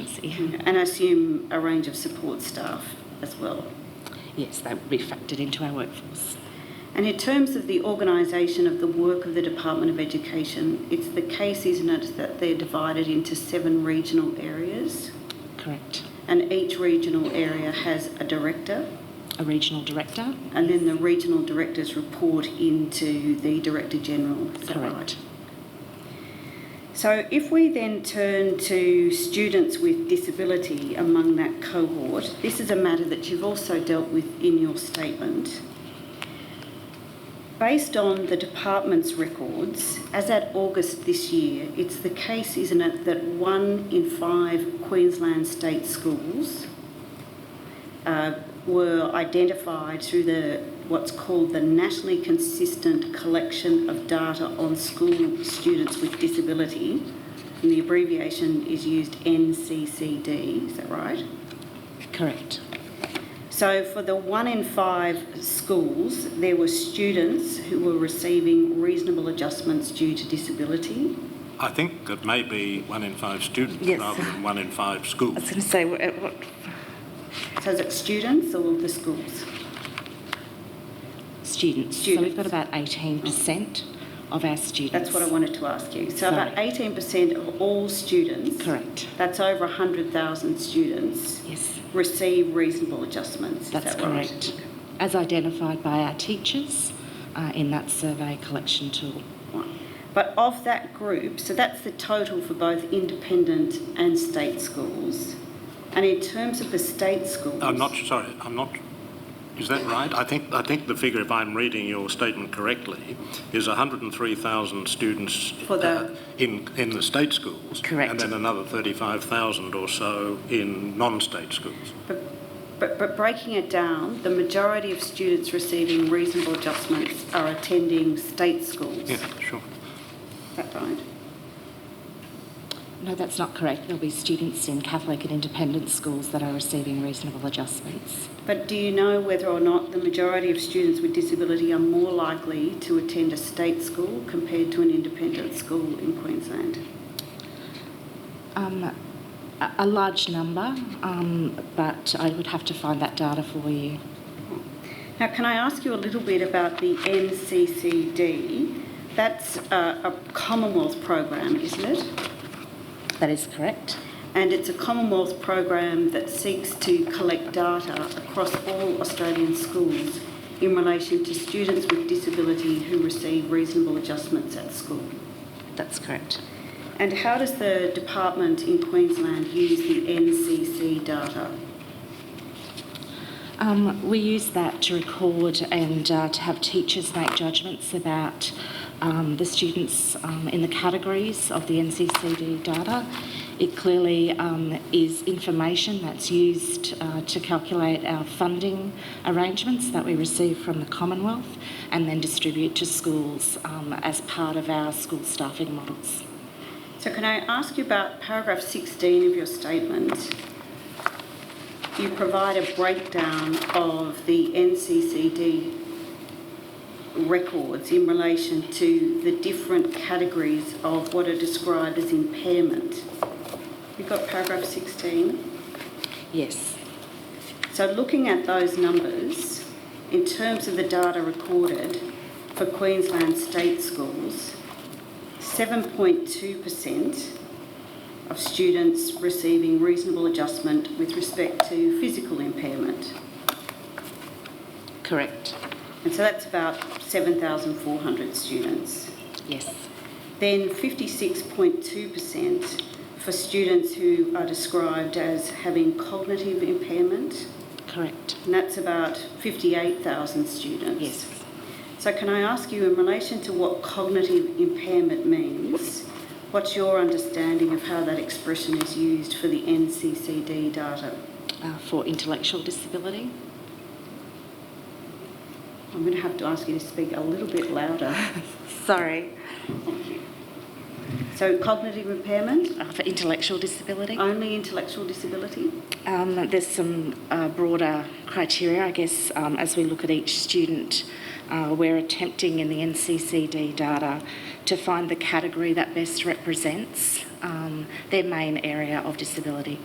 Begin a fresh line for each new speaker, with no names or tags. agency.
And I assume a range of support staff as well.
Yes, that would be factored into our workforce.
And in terms of the organisation of the work of the Department of Education, it's the case, isn't it, that they're divided into seven regional areas?
Correct.
And each regional area has a director,
A regional director.
and then the regional directors report into the Director General. Is that right?
Correct.
So if we then turn to students with disability among that cohort, this is a matter that you've also dealt with in your statement. Based on the department's records, as at August this year, it's the case, isn't it, that one in five Queensland state schools uh, were identified through the what's called the nationally consistent collection of data on school students with disability, and the abbreviation is used NCCD. Is that right?
Correct.
So for the one in five schools, there were students who were receiving reasonable adjustments due to disability.
I think it may be one in five students
Yes.
rather than one in five
I was
schools.
going to say,
uh,
what, what,
So is it students or the schools?
students. So we've got about 18% of our students.
That's what I wanted to ask you. So about
Sorry.
18% of all students.
Correct.
That's over 100,000 students
Yes,
receive reasonable adjustments. Is
that's
that right?
correct. As identified by our teachers uh, in that survey collection tool.
Right. But of that group, so that's the total for both independent and state schools. And in terms of the state schools,
I'm not, sorry, I'm not, is that right? I think, I think the figure, if I'm reading your statement correctly, is 103,000 students
For the-
uh, in, in the state schools.
Correct.
And then another 35,000 or so in non-state schools.
but, but, but breaking it down, the majority of students receiving reasonable adjustments are attending state schools.
Yeah, sure.
Is that right?
No, that's not correct. There'll be students in Catholic and independent schools that are receiving reasonable adjustments.
But do you know whether or not the majority of students with disability are more likely to attend a state school compared to an independent school in Queensland?
Um, a, a large number, um, but I would have to find that data for you.
Now, can I ask you a little bit about the NCCD? That's uh, a Commonwealth program, isn't it?
That is correct.
And it's a Commonwealth program that seeks to collect data across all Australian schools in relation to students with disability who receive reasonable adjustments at school.
That's correct.
And how does the department in Queensland use the NCC data?
Um, we use that to record and uh, to have teachers make judgments about um, the students um, in the categories of the NCCD data. It clearly um, is information that's used uh, to calculate our funding arrangements that we receive from the Commonwealth and then distribute to schools um, as part of our school staffing models.
So, can I ask you about paragraph 16 of your statement? You provide a breakdown of the NCCD records in relation to the different categories of what are described as impairment. You've got paragraph 16.
Yes.
So looking at those numbers, in terms of the data recorded for Queensland state schools, 7.2% of students receiving reasonable adjustment with respect to physical impairment.
Correct.
And so that's about 7,400 students.
Yes.
Then 56.2% for students who are described as having cognitive impairment,
Correct.
and that's about 58,000 students.
Yes.
So can I ask you, in relation to what cognitive impairment means, what's your understanding of how that expression is used for the NCCD data?
Uh, for intellectual disability.
I'm going to have to ask you to speak a little bit louder.
Sorry.
So cognitive impairment,
Uh, for intellectual disability.
only intellectual disability?
Um, there's some uh, broader criteria, I guess, um, as we look at each student Uh, we're attempting in the NCCD data to find the category that best represents um, their main area of disability.